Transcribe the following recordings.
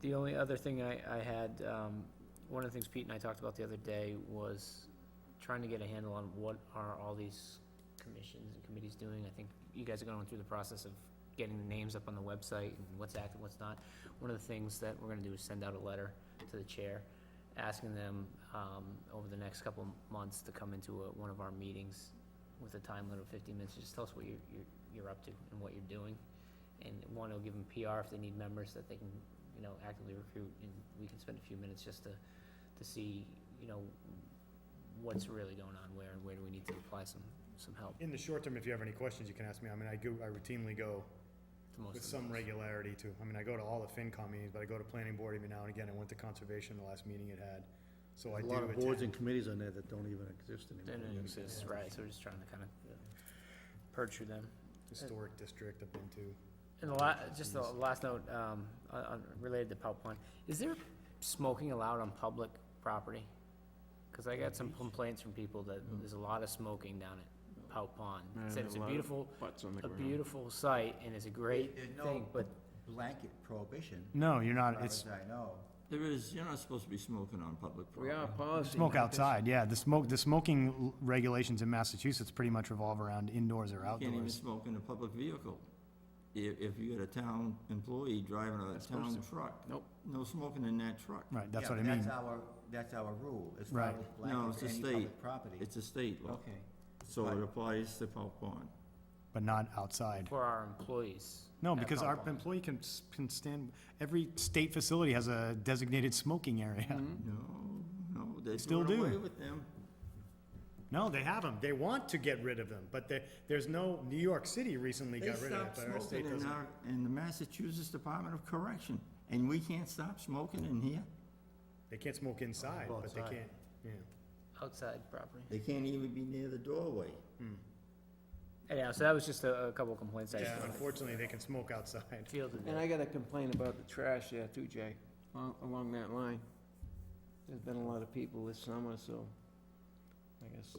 The only other thing I, I had, um, one of the things Pete and I talked about the other day was trying to get a handle on what are all these commissions and committees doing. I think you guys are going through the process of getting the names up on the website and what's active, what's not. One of the things that we're gonna do is send out a letter to the chair, asking them, um, over the next couple months to come into a, one of our meetings with a time limit of fifteen minutes, just tell us what you're, you're, you're up to and what you're doing. And one, it'll give them PR if they need members that they can, you know, actively recruit, and we can spend a few minutes just to, to see, you know, what's really going on where, and where do we need to apply some, some help In the short term, if you have any questions, you can ask me. I mean, I go, I routinely go to most of with them. some regularity to, I mean, I go to all the FinCom meetings, but I go to planning board every now and again. I went to conservation the last meeting it had. So I A do lot of boards and attend. committees on there that don't even exist They anymore. don't exist, right, so we're just trying to kind of purge through them. Historic district I've been to. And the la, just the last note, um, on, on, related to PowerPoint, is there smoking allowed on public property? Cause I got some complaints from people that there's a lot of smoking down at Pout Pond. Said it's a beautiful, Butts on the a ground. beautiful site and it's a great There's no- thing, but blanket prohibition, No, you're as not, far as I know. There is, you're not supposed to be smoking on public We property. are policy. yeah. The smoke, the smoking regulations in Massachusetts pretty much revolve around indoors or You can't even smoke in a public vehicle. If, if you got a town employee driving a Not supposed town to. truck, Nope. no smoking in that truck. Right, Yeah, but That's our, that's our rule, as far Right. as No, blanket it's a for any state. public property. It's a state law, Okay. so Right. it applies to Paw Pond. but not outside. for our employees. No, at because our Pout Pond. employee can, s- can stand, every state facility has a designated smoking area. No, no, they're Still doing away do. with them. No, they have them. They want to get rid of them, but there, there's no, New York City recently They got rid of it, stopped but our state smoking in doesn't. our, in the Massachusetts Department of Correction, and we can't stop smoking in here? They can't smoke inside, but they Outside. can't, yeah. Outside property. They can't even be near the doorway. Anyhow, so that was just a, a couple of complaints I Yeah, unfortunately, they can smoke outside. fielded. And I got a complaint about the trash there too, Jay, al- along that line. There's been a lot of people this summer, so I guess, uh,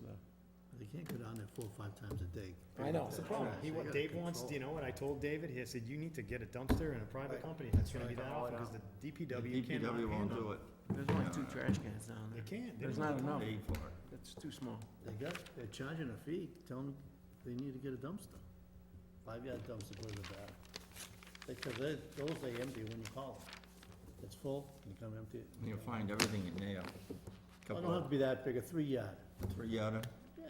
They can't go down there four or five times a day. I know. That's the problem. Oh, He, what Dave wants, you know what I told David? He said, you need to get a dumpster in a private company. That's gonna be that often, because the DPW cannot DPW won't handle do it. it. there's only two trash cans down They there. can't. They There's don't not have enough. Pay for it. It's too small. They got, they're charging a fee, tell them they need to get a dumpster. Five yard dumpster goes with that. Because they, those they empty when you call them. It's full, you come empty. it. You'll find everything in there. Well, Couple don't have to of be that big, a three yard. three outer, Yeah.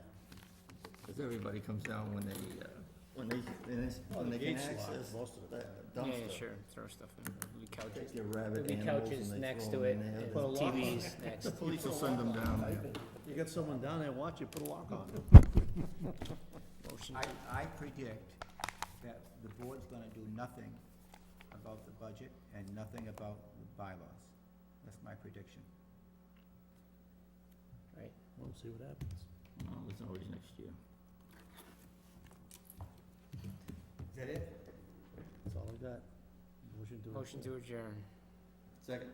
because everybody comes down when they, uh, when they, when Oh, they- when they can Gates locked access most of the that time. Yeah, dumpster. yeah, sure, throw stuff in, There'll be couches. Take your There'll rabbit be animals couches and they next throw to it, them in there. and Put a lock on TVs next. The police will send them down there. You got someone down there watching, put a lock on it. Motion I, I predict that the board's gonna do nothing about the budget and nothing about the bylaws. That's my prediction. Right, We'll see what happens. No, it's always next year. Is that it? That's all I got. Motion to. motion to adjourn. Second.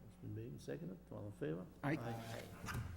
Motion made and seconded, all in favor? I, Aye.